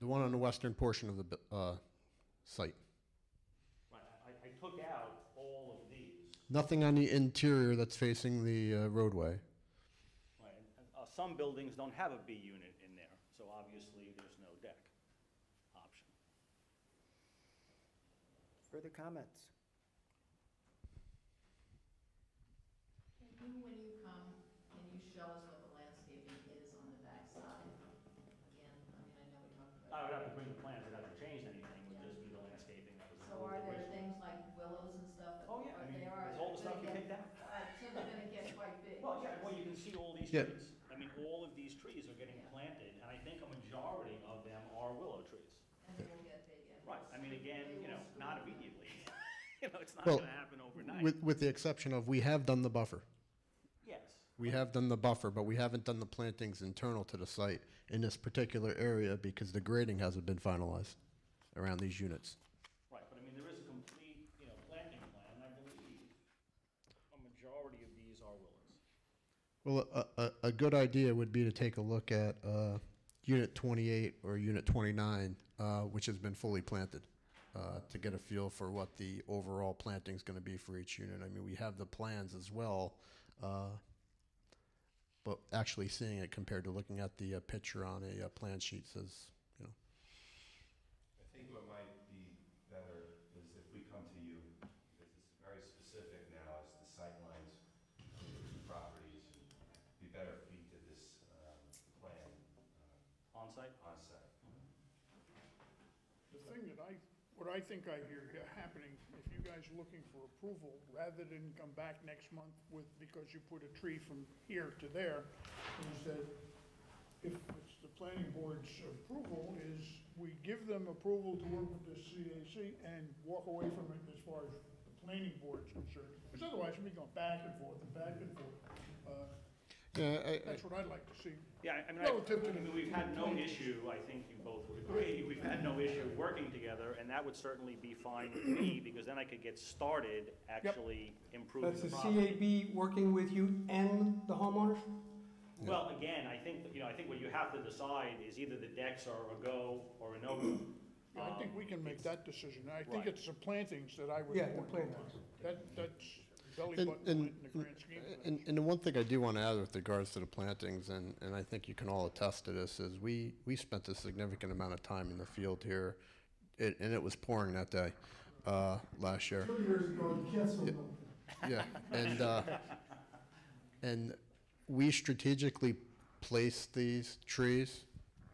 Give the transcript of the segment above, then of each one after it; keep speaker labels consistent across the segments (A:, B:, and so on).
A: The one on the western portion of the bu- uh, site.
B: Right, I, I took out all of these.
A: Nothing on the interior that's facing the uh, roadway.
B: Right, and, uh, some buildings don't have a B unit in there, so obviously there's no deck option.
C: Further comments?
D: Can you, when you come, can you show us what the landscaping is on the backside? Again, I mean, I know we talked
B: I
D: about.
B: would have to bring the plans, I'd have to change anything, would just be the landscaping that was.
D: So are there
B: originally.
D: things like willows and stuff? that-
B: Oh, yeah, I
D: or
B: mean,
D: they are-
B: there's all the stuff you
D: they're gonna
B: picked
D: get- Uh, so they're gonna get quite big.
B: Well, yeah, well, you can see all these
A: Yeah.
B: trees. I mean, all of these trees are getting
D: Yeah.
B: planted, and I think a majority of them are willow trees.
D: And they will get big, yeah.
B: Right, I mean, again, you know, not immediately. You know, it's not
A: Well,
B: gonna happen
A: With,
B: overnight.
A: with the exception of, we have done the buffer.
B: Yes,
A: We have done the buffer, but we haven't done the plantings internal to the site in this particular area because the grading hasn't been finalized around these units.
B: right, but I mean, there is a complete, you know, planting plan, and I believe a majority of these are willows.
A: Well, a, a, a good idea would be to take a look at uh, Unit 28 or Unit 29, uh, which has been fully planted, uh, to get a feel for what the overall planting is going to be for each unit. I mean, we have the plans as well, uh, but actually seeing it compared to looking at the uh, picture on a uh, plan sheet says, you know,
E: I think what might be better is if we come to you, because it's very specific now as to sightlines of the properties. and It'd Be better if we did this um, plan
B: On-site?
E: on site.
F: The thing that I, what I think I hear happening, if you guys are looking for approval, rather than come back next month with, because you put a tree from here to there, is that if it's the planning board's approval, is we give them approval to work with the CAC and walk away from it as far as the planning board's concerned. Because otherwise, we'd be going back and forth and back and forth. Uh, That's what I'd like to see.
B: Yeah, I- I mean,
F: Relative
B: I-
F: to-
B: I mean, we've had no issue, I think you both would agree, we've had no issue working together, and that would certainly be fine with me, because then I could get started actually improving
G: That's
B: the
G: the
B: property.
G: CAB working with you and the homeowners?
B: Well, again, I think, that, you know, I think what you have to decide is either the decks are a go or a no-go.
F: I think we can make that decision. I think
B: Right.
F: it's the plantings that I would.
G: Yeah, the
F: want.
G: plantings.
F: That, that's belly
A: And-
F: button
A: and-
F: in the grand scheme of things.
A: And, and the one thing I do want to add with regards to the plantings, and, and I think you can all attest to this, is we, we spent a significant amount of time in the field here, and, and it was pouring that day, uh, last year.
G: Two years ago, you canceled them.
A: Yeah, and, uh, and we strategically placed these trees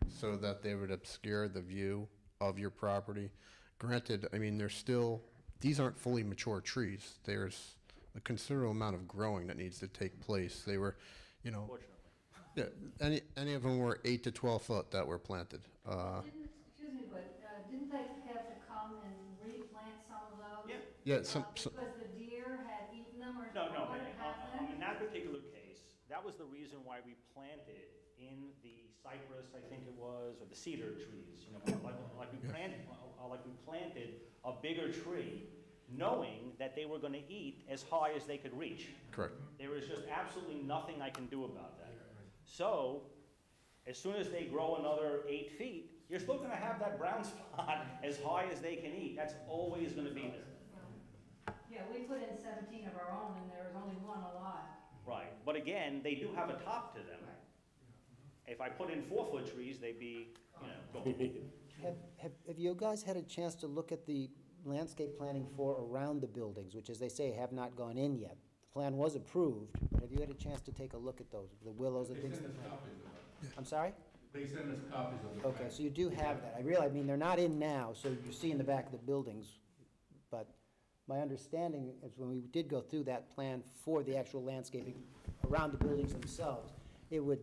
A: so that they would obscure the view of your property. Granted, I mean, they're still, these aren't fully mature trees. There's a considerable amount of growing that needs to take place. They were, you know,
B: Fortunately.
A: yeah, any, any of them were eight to 12 foot that were planted. Uh,
H: Didn't, excuse me, but uh, didn't they have to come and replant some of those?
B: Yeah.
A: Yeah,
H: Uh,
A: some- some-
H: Because the deer had eaten them or
B: No, no,
H: what had
B: uh, uh, in
H: happened?
B: that particular case, that was the reason why we planted in the cypress, I think it was, or the cedar trees, you know, like, like we planted, uh, like we planted a bigger tree, knowing that they were gonna eat as high as they could reach.
A: Correct.
B: There is just absolutely nothing I can do about that. So, as soon as they grow another eight feet, you're still gonna have that brown spot as high as they can eat, that's always gonna be there.
H: Yeah, we put in 17 of our own and there was only one alive.
B: Right, but again, they do have a top to them. If I put in four-foot trees, they'd be, you know, gone.
C: Have, have have you guys had a chance to look at the landscape planning for around the buildings, which, as they say, have not gone in yet? The plan was approved, but have you had a chance to take a look at those, the willows and
I: They
C: things?
I: send us
C: that-
I: copies of it.
C: I'm sorry?
I: They send us copies of the.
C: Okay, so you do have that. I realize, I mean, they're not in now, so you see in the back of the buildings. But my understanding is when we did go through that plan for the actual landscaping around the buildings themselves, it would,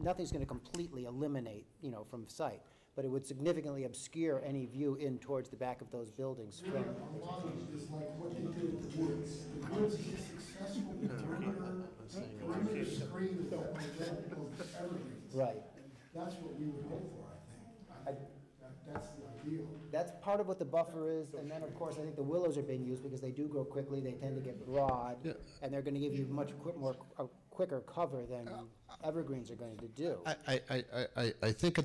C: nothing's going to completely eliminate, you know, from sight, but it would significantly obscure any view in towards the back of those buildings
I: Really,
C: from,
I: our model is like what they did with the woods. The woods is a successful perimeter, perimeter screen of those evergreens.
C: right.
I: That's what we would hope for, I think. I think that- that's the ideal.
C: That's part of what the buffer is, and then, of course, I think the willows are being used because they do grow quickly, they tend to get broad,
A: Yeah.
C: and they're gonna give you much quick, uh,
I: Uh,
C: more, a quicker cover than evergreens are going to do.
A: I, I, I, I, I think at